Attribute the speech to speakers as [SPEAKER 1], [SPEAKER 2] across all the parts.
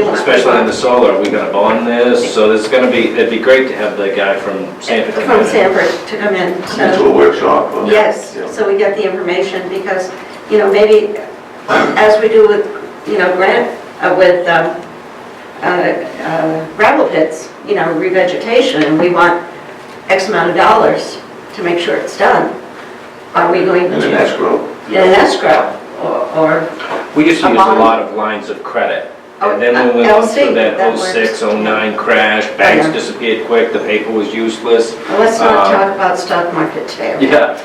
[SPEAKER 1] Especially in the solar, we gotta bond this, so it's gonna be, it'd be great to have the guy from Sanford come
[SPEAKER 2] From
[SPEAKER 1] in.
[SPEAKER 2] Sanford to come in,
[SPEAKER 3] Into
[SPEAKER 2] so,
[SPEAKER 3] a workshop? uh,
[SPEAKER 2] yes,
[SPEAKER 3] yeah.
[SPEAKER 2] so we get the information, because, you know, maybe, as we do with, you know, grant, uh, with um, uh, uh, gravel pits, you know, revegetation, we want X amount of dollars to make sure it's done. Are we going to?
[SPEAKER 3] And an escrow?
[SPEAKER 2] In an escrow, or, or-
[SPEAKER 1] We used to
[SPEAKER 2] A
[SPEAKER 1] use a
[SPEAKER 2] bond?
[SPEAKER 1] lot of lines of credit.
[SPEAKER 2] Oh,
[SPEAKER 1] And then when we
[SPEAKER 2] uh,
[SPEAKER 1] went through
[SPEAKER 2] LC,
[SPEAKER 1] that
[SPEAKER 2] that works.
[SPEAKER 1] '06, '09 crash, banks
[SPEAKER 2] Yeah.
[SPEAKER 1] disappeared quick, the paper was useless.
[SPEAKER 2] well, let's not
[SPEAKER 1] Um,
[SPEAKER 2] talk about stock market today.
[SPEAKER 1] Yeah,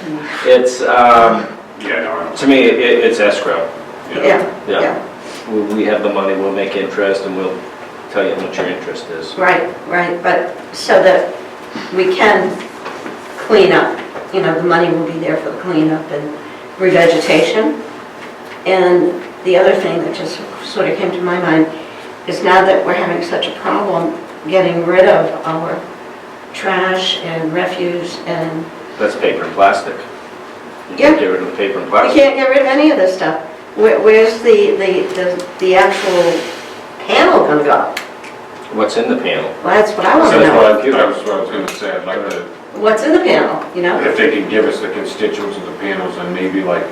[SPEAKER 1] it's, um,
[SPEAKER 4] Yeah, no, I don't.
[SPEAKER 1] to me, it, it's escrow.
[SPEAKER 2] Yeah,
[SPEAKER 1] Yeah.
[SPEAKER 2] yeah,
[SPEAKER 1] We, we have the money, we'll make interest and we'll tell you how much your interest is.
[SPEAKER 2] right, right, but so that we can clean up, you know, the money will be there for the cleanup and revegetation. And the other thing that just sort of came to my mind is now that we're having such a problem getting rid of our trash and refuse and,
[SPEAKER 1] That's paper and plastic. You
[SPEAKER 2] Yeah.
[SPEAKER 1] can get rid of the paper and
[SPEAKER 2] we
[SPEAKER 1] plastic.
[SPEAKER 2] can't get rid of any of this stuff. Where- Where's the, the, the- the actual panel gonna go?
[SPEAKER 1] What's in the panel?
[SPEAKER 2] Well, that's what I
[SPEAKER 4] So
[SPEAKER 2] want to
[SPEAKER 4] That's
[SPEAKER 2] know.
[SPEAKER 4] what I, that was what I was gonna say, I'd like to,
[SPEAKER 2] What's in the panel, you know?
[SPEAKER 4] if they could give us the constituents of the panels and maybe like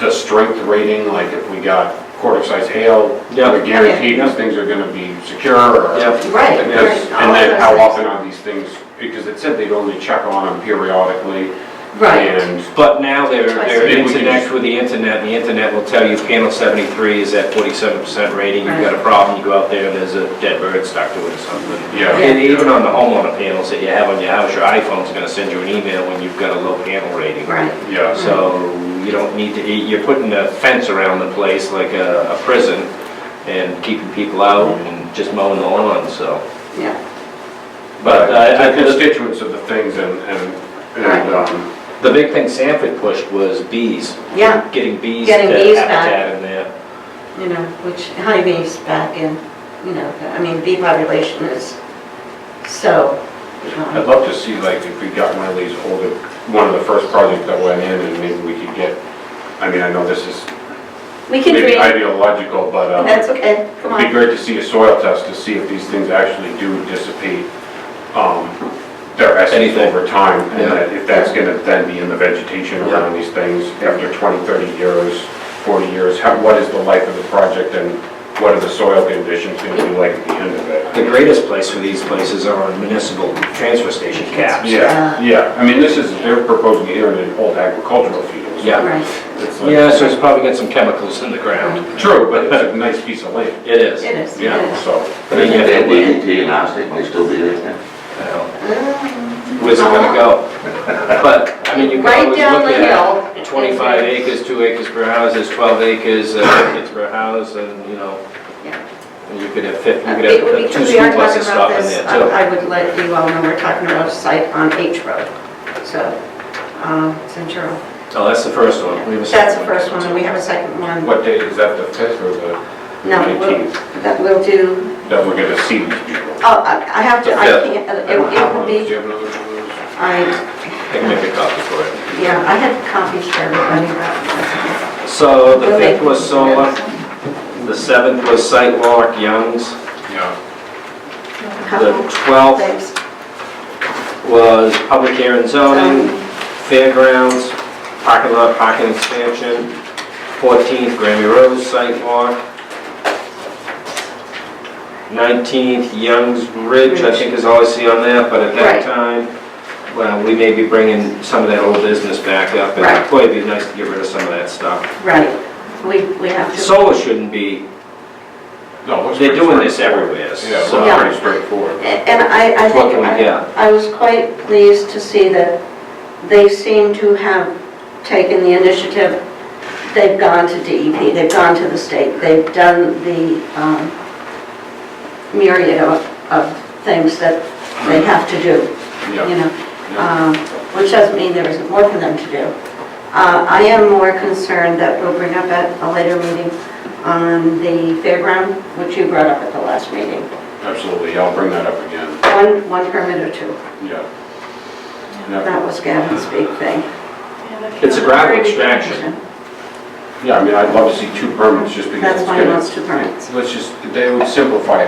[SPEAKER 4] the strength rating, like if we got quarter size hail,
[SPEAKER 1] Yeah.
[SPEAKER 4] we're guaranteed these things are gonna be secure or.
[SPEAKER 1] Yeah.
[SPEAKER 2] Right.
[SPEAKER 4] And
[SPEAKER 2] right,
[SPEAKER 4] this-
[SPEAKER 2] all
[SPEAKER 4] and then
[SPEAKER 2] those
[SPEAKER 4] how
[SPEAKER 2] things.
[SPEAKER 4] often are these things, because it said they'd only check on them periodically.
[SPEAKER 2] Right,
[SPEAKER 4] And
[SPEAKER 1] But now they're,
[SPEAKER 2] Twice
[SPEAKER 1] they're
[SPEAKER 4] a week.
[SPEAKER 1] internet with the internet, and the internet will tell you panel seventy-three is at forty-seven percent rating, you've
[SPEAKER 2] Right.
[SPEAKER 1] got a problem, you go out there, and there's a dead bird stuck to it or something.
[SPEAKER 4] Yeah.
[SPEAKER 1] And even on the homeowner panels that you have on your house, your iPhone's gonna send you an email when you've got a low panel rating.
[SPEAKER 2] right,
[SPEAKER 4] Yeah, so
[SPEAKER 1] So you don't need to, you're putting a fence around the place like a a prison, and keeping people out and just mowing the lawn, so.
[SPEAKER 2] yeah.
[SPEAKER 1] But I, I
[SPEAKER 4] the
[SPEAKER 1] think it's
[SPEAKER 4] constituents of the things and, and, and, um,
[SPEAKER 1] The big thing Sanford pushed was bees.
[SPEAKER 2] Yeah.
[SPEAKER 1] Getting bees to
[SPEAKER 2] Getting bees back.
[SPEAKER 1] habitat in there.
[SPEAKER 2] You know, which honeybees back in, you know, I mean, bee population is so,
[SPEAKER 4] I'd
[SPEAKER 2] um,
[SPEAKER 4] love to see like if we got one of these older, one of the first projects that went in and maybe we could get, I mean, I know this is
[SPEAKER 2] we can
[SPEAKER 4] maybe
[SPEAKER 2] dream,
[SPEAKER 4] ideological, but um,
[SPEAKER 2] that's okay, come
[SPEAKER 4] it'd be
[SPEAKER 2] on.
[SPEAKER 4] great to see a soil test to see if these things actually do dissipate um, their essence
[SPEAKER 1] Anything.
[SPEAKER 4] over time,
[SPEAKER 1] Yeah.
[SPEAKER 4] and that if that's gonna then be in the vegetation
[SPEAKER 1] Yeah.
[SPEAKER 4] around these things after 20, 30 years, 40 years, how, what is the life of the project and what are the soil conditions gonna be like at the end of it?
[SPEAKER 1] The greatest place for these places are on municipal transfer station caps.
[SPEAKER 4] Yeah, yeah, I mean, this is, they're proposing here in an old agricultural field.
[SPEAKER 1] Yeah.
[SPEAKER 2] Right,
[SPEAKER 4] It's like-
[SPEAKER 1] Yeah, so it's probably got some chemicals in the ground.
[SPEAKER 4] True, but it's a nice piece of land,
[SPEAKER 1] It is.
[SPEAKER 2] it is, it
[SPEAKER 1] Yeah.
[SPEAKER 2] is.
[SPEAKER 4] so.
[SPEAKER 1] I mean, you have
[SPEAKER 3] That
[SPEAKER 1] to wait.
[SPEAKER 3] DDT and arsenic may still be there.
[SPEAKER 2] Um,
[SPEAKER 1] Well, uh, Where's it gonna go? But, I mean, you can
[SPEAKER 2] Right
[SPEAKER 1] always
[SPEAKER 2] down
[SPEAKER 1] look
[SPEAKER 2] the
[SPEAKER 1] at
[SPEAKER 2] hill.
[SPEAKER 1] 25 acres, 2 acres per house, is 12 acres, uh, acres per house, and, you know,
[SPEAKER 2] Yeah. Uh,
[SPEAKER 1] and you could have 50, you could
[SPEAKER 2] It would
[SPEAKER 1] have
[SPEAKER 2] be,
[SPEAKER 1] two
[SPEAKER 2] because we are talking
[SPEAKER 1] school buses
[SPEAKER 2] about
[SPEAKER 1] stopping
[SPEAKER 2] this, Uh,
[SPEAKER 1] there too.
[SPEAKER 2] I I would let you all know we're talking about a site on H Road, so, um, Central.
[SPEAKER 1] Oh, that's the first one. We have a
[SPEAKER 2] That's the
[SPEAKER 1] second
[SPEAKER 2] first one, and we have a second one.
[SPEAKER 4] What date is that, the 5th or the
[SPEAKER 2] No, we'll-
[SPEAKER 4] 19th?
[SPEAKER 2] that we'll do
[SPEAKER 4] That we're gonna see these people?
[SPEAKER 2] Oh, I I have to, I
[SPEAKER 1] Yeah.
[SPEAKER 2] can't, uh, it it would
[SPEAKER 4] Do
[SPEAKER 2] be,
[SPEAKER 4] you have another one of those?
[SPEAKER 2] I,
[SPEAKER 1] I can make a copy for it.
[SPEAKER 2] yeah, I had copies for everybody. but-
[SPEAKER 1] So uh, the
[SPEAKER 2] We'll make-
[SPEAKER 1] fifth was solar, the seventh was sidewalk, Young's,
[SPEAKER 4] Yeah,
[SPEAKER 1] the
[SPEAKER 2] Couple
[SPEAKER 1] twelfth
[SPEAKER 2] things.
[SPEAKER 1] was public hearing and zoning, fairgrounds, parking lot, parking expansion, fourteenth Grammy Road sidewalk, nineteenth Young's Ridge, I think is all I see on that, but at that
[SPEAKER 2] Right.
[SPEAKER 1] time, well, we may be bringing some of that old business back up, and
[SPEAKER 2] Right.
[SPEAKER 1] boy, it'd be nice to get rid of some of that stuff.
[SPEAKER 2] Right, we, we have to.
[SPEAKER 1] Solar shouldn't be
[SPEAKER 4] no, it looks
[SPEAKER 1] They're
[SPEAKER 4] pretty
[SPEAKER 1] doing this
[SPEAKER 4] straightforward.
[SPEAKER 1] everywhere,
[SPEAKER 4] Yeah, it
[SPEAKER 1] so-
[SPEAKER 4] looks pretty straightforward.
[SPEAKER 2] And I, I
[SPEAKER 1] What
[SPEAKER 2] think,
[SPEAKER 1] can we get?
[SPEAKER 2] I- I was quite pleased to see that they seem to have taken the initiative. They've gone to DEP, they've gone to the state, they've done the um, myriad of, of things that they have to do, you
[SPEAKER 4] Yeah,
[SPEAKER 2] know?
[SPEAKER 4] yeah.
[SPEAKER 2] um, which doesn't mean there isn't more for them to do. Uh, I am more concerned that we'll bring up at a later meeting on the fairground, which you brought up at the last meeting,
[SPEAKER 4] absolutely, I'll bring that up again,
[SPEAKER 2] one, one permit or two.
[SPEAKER 4] yeah. Yeah.
[SPEAKER 2] That was Gavin's big thing.
[SPEAKER 1] It's a gravel extraction.
[SPEAKER 4] Yeah, I mean, I'd love to see two permits just because
[SPEAKER 2] That's
[SPEAKER 4] it's
[SPEAKER 2] why he
[SPEAKER 4] gonna,
[SPEAKER 2] wants two permits.
[SPEAKER 4] let's just, they would simplify it.